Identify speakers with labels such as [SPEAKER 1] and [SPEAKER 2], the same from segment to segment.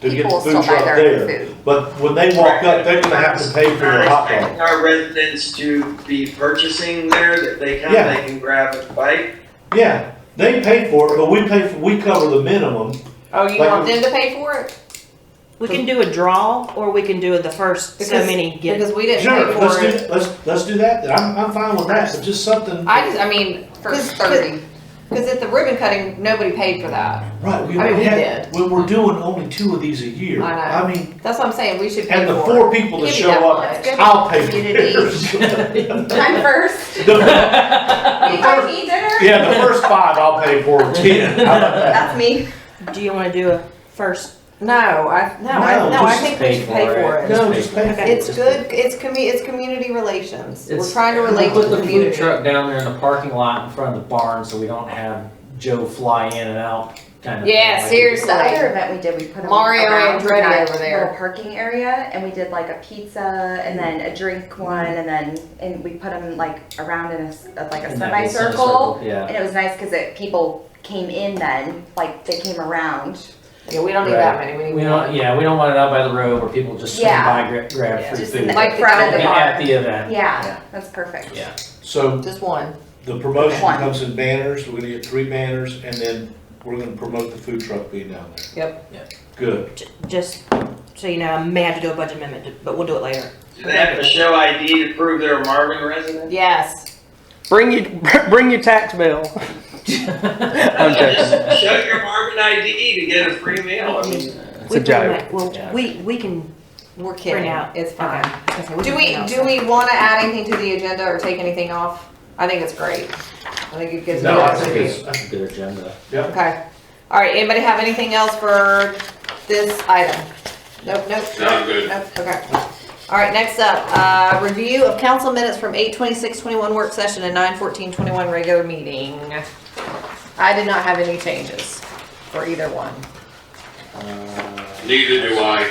[SPEAKER 1] to get the
[SPEAKER 2] People
[SPEAKER 1] food
[SPEAKER 2] still buy
[SPEAKER 1] truck
[SPEAKER 2] their own
[SPEAKER 1] there.
[SPEAKER 2] food.
[SPEAKER 1] But when they walk up, they're gonna have to pay for their hot dog.
[SPEAKER 3] Expecting Our residents to be purchasing there, that they come,
[SPEAKER 1] Yeah.
[SPEAKER 3] they can grab a bite.
[SPEAKER 1] Yeah, they pay for it, but we pay, for we cover the minimum.
[SPEAKER 2] Oh, you
[SPEAKER 1] Like-
[SPEAKER 2] want them to pay for it?
[SPEAKER 4] We can do a draw, or we can do the first so
[SPEAKER 2] Because-
[SPEAKER 4] many get.
[SPEAKER 2] Because we didn't
[SPEAKER 1] Sure,
[SPEAKER 2] pay
[SPEAKER 1] let's
[SPEAKER 2] for it.
[SPEAKER 1] do, let's, let's do that, then. I'm, I'm fine with that, but just something,
[SPEAKER 2] I just, I mean, for
[SPEAKER 4] Cause-
[SPEAKER 2] thirty, cause at the ribbon cutting, nobody paid for that.
[SPEAKER 1] right, we
[SPEAKER 2] I mean, we
[SPEAKER 1] had,
[SPEAKER 2] did.
[SPEAKER 1] we we're doing only two of these a year.
[SPEAKER 2] I know.
[SPEAKER 1] I mean,
[SPEAKER 2] That's what I'm saying, we should pay
[SPEAKER 1] and the
[SPEAKER 2] for it.
[SPEAKER 1] four people that
[SPEAKER 2] Give me
[SPEAKER 1] show
[SPEAKER 2] that
[SPEAKER 1] up,
[SPEAKER 2] much.
[SPEAKER 1] I'll pay for
[SPEAKER 2] Community.
[SPEAKER 1] theirs.
[SPEAKER 2] I'm first.
[SPEAKER 1] The-
[SPEAKER 2] You guys need dinner?
[SPEAKER 1] Yeah, the first five, I'll pay for ten, how about that?
[SPEAKER 2] That's me.
[SPEAKER 4] Do you wanna do a first?
[SPEAKER 2] No, I, no, I,
[SPEAKER 1] No,
[SPEAKER 2] no,
[SPEAKER 1] just
[SPEAKER 2] I think we should pay for it.
[SPEAKER 1] No, just pay for it.
[SPEAKER 2] It's good, it's commu, it's community relations. We're
[SPEAKER 5] It's-
[SPEAKER 2] trying to
[SPEAKER 5] We
[SPEAKER 2] relate to
[SPEAKER 5] put
[SPEAKER 2] the
[SPEAKER 5] the food
[SPEAKER 2] community.
[SPEAKER 5] truck down there in the parking lot in front of the barn, so we don't have Joe fly in and out kind of. thing.
[SPEAKER 2] Yeah,
[SPEAKER 5] Like,
[SPEAKER 2] seriously.
[SPEAKER 6] The other event we did, we put them
[SPEAKER 2] Mario
[SPEAKER 6] around
[SPEAKER 2] Andretti
[SPEAKER 6] that
[SPEAKER 2] over there.
[SPEAKER 6] little parking area, and we did like a pizza, and then a drink one, and then and we put them like around in a s- uh, like a
[SPEAKER 5] in that little semicircle,
[SPEAKER 6] semicircle,
[SPEAKER 5] Yeah.
[SPEAKER 6] and it was nice because it people came in then, like they came around.
[SPEAKER 2] Yeah, we don't need that many, we
[SPEAKER 5] We
[SPEAKER 2] need
[SPEAKER 5] don't,
[SPEAKER 2] one.
[SPEAKER 5] yeah, we don't want it out by the road where people just swing
[SPEAKER 6] Yeah.
[SPEAKER 5] by, gra- grab free
[SPEAKER 6] Just
[SPEAKER 5] food.
[SPEAKER 6] in the
[SPEAKER 2] Like the
[SPEAKER 6] front of the
[SPEAKER 2] bar.
[SPEAKER 5] At
[SPEAKER 6] bar.
[SPEAKER 5] the event. Yeah.
[SPEAKER 6] Yeah, that's perfect.
[SPEAKER 5] Yeah.
[SPEAKER 1] So
[SPEAKER 2] Just one.
[SPEAKER 1] The promotion
[SPEAKER 6] One.
[SPEAKER 1] comes in banners, we're gonna get three banners, and then we're gonna promote the food truck being down there.
[SPEAKER 2] Yep.
[SPEAKER 5] Yep.
[SPEAKER 1] Good.
[SPEAKER 4] J- Just, so you know, I may have to do a budget amendment, but we'll do it later.
[SPEAKER 3] Do they have to show ID to prove they're a Marvin resident?
[SPEAKER 2] Yes.
[SPEAKER 7] Bring your bring your tax bill. I'm joking.
[SPEAKER 3] Just Show your Marvin ID to get a free meal, I mean.
[SPEAKER 7] It's
[SPEAKER 4] We
[SPEAKER 7] a
[SPEAKER 4] pretty
[SPEAKER 7] joke.
[SPEAKER 4] much- Well,
[SPEAKER 5] Yeah.
[SPEAKER 4] we, we can,
[SPEAKER 2] We're kidding.
[SPEAKER 4] Bring out.
[SPEAKER 2] It's fine.
[SPEAKER 4] okay. Okay,
[SPEAKER 2] Do
[SPEAKER 4] can
[SPEAKER 2] we,
[SPEAKER 4] bring out
[SPEAKER 2] do
[SPEAKER 4] some.
[SPEAKER 2] we wanna add anything to the agenda or take anything off? I think it's great. I think it gives me
[SPEAKER 1] No, I
[SPEAKER 2] lots
[SPEAKER 1] think
[SPEAKER 2] of
[SPEAKER 1] it's-
[SPEAKER 2] views.
[SPEAKER 5] That's a good agenda.
[SPEAKER 2] Okay. All right, anybody have anything else for this item? Nope, nope.
[SPEAKER 8] No, good.
[SPEAKER 2] Nope, okay. All right, next up, uh, review of council minutes from eight twenty-six twenty-one work session and nine fourteen twenty-one regular meeting. I did not have any changes for either one.
[SPEAKER 5] Uh,
[SPEAKER 8] Neither do I.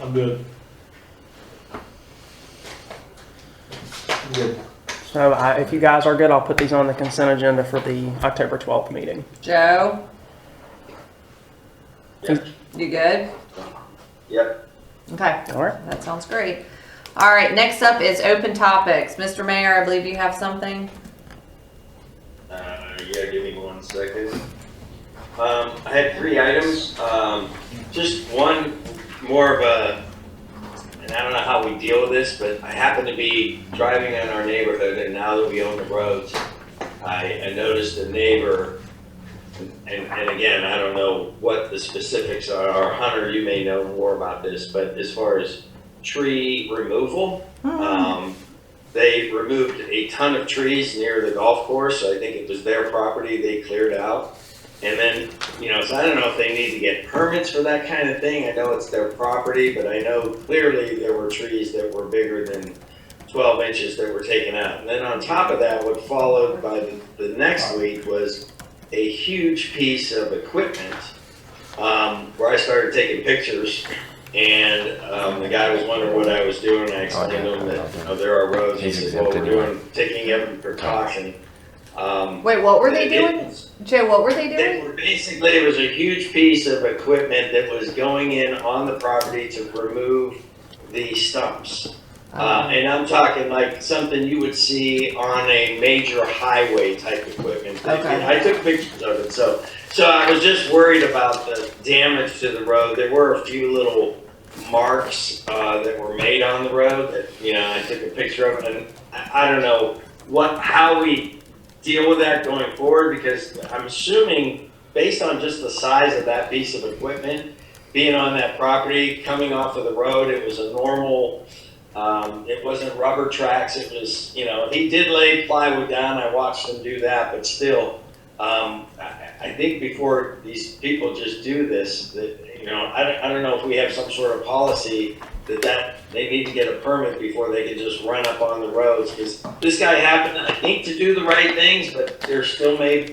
[SPEAKER 1] I'm good.
[SPEAKER 5] Good.
[SPEAKER 7] So I, if you guys are good, I'll put these on the consent agenda for the October 12th meeting.
[SPEAKER 2] Joe?
[SPEAKER 3] Yeah.
[SPEAKER 2] You good?
[SPEAKER 3] Yep.
[SPEAKER 2] Okay.
[SPEAKER 7] All right.
[SPEAKER 2] That sounds great. All right, next up is open topics. Mr. Mayor, I believe you have something.
[SPEAKER 3] Uh, yeah, give me one second. Um, I had three items, um, just one more of a, and I don't know how we deal with this, but I happen to be driving in our neighborhood and now that we own the roads, I, I noticed a neighbor, and, and again, I don't know what the specifics are, Hunter, you may know more about this, but as far as tree removal, um, they removed a ton of trees near the golf course. I think it was their property they cleared out. And then, you know, so I don't know if they need to get permits for that kind of thing. I know it's their property, but I know clearly there were trees that were bigger than twelve inches that were taken out. And then on top of that, what followed by the, the next week was a huge piece of equipment, um, where I started taking pictures and um, the guy was wondering what I was doing. I explained to him that you know, there are roads. He said, "Well, we're doing taking every precaution." Um,
[SPEAKER 2] Wait, what were they
[SPEAKER 3] it-
[SPEAKER 2] doing? Joe, what were they
[SPEAKER 3] They
[SPEAKER 2] doing?
[SPEAKER 3] were basically it was a huge piece of equipment that was going in on the property to remove the stumps. Uh, and I'm talking like something you would see on a major highway type equipment.
[SPEAKER 2] Okay.
[SPEAKER 3] I took pictures of it, so so I was just worried about the damage to the road. There were a few little marks uh, that were made on the road that, you know, I took a picture of it. And I, I don't know what, how we deal with that going forward because I'm assuming based on just the size of that piece of equipment, being on that property, coming off of the road, it was a normal, um, it wasn't rubber tracks. It was, you know, he did lay plywood down. I watched him do that, but still, um, I, I think before these people just do this, that, you know, I don't, I don't know if we have some sort of policy that that, they need to get a permit before they can just run up on the roads, because this guy happened, I think, to do the right things, but there still may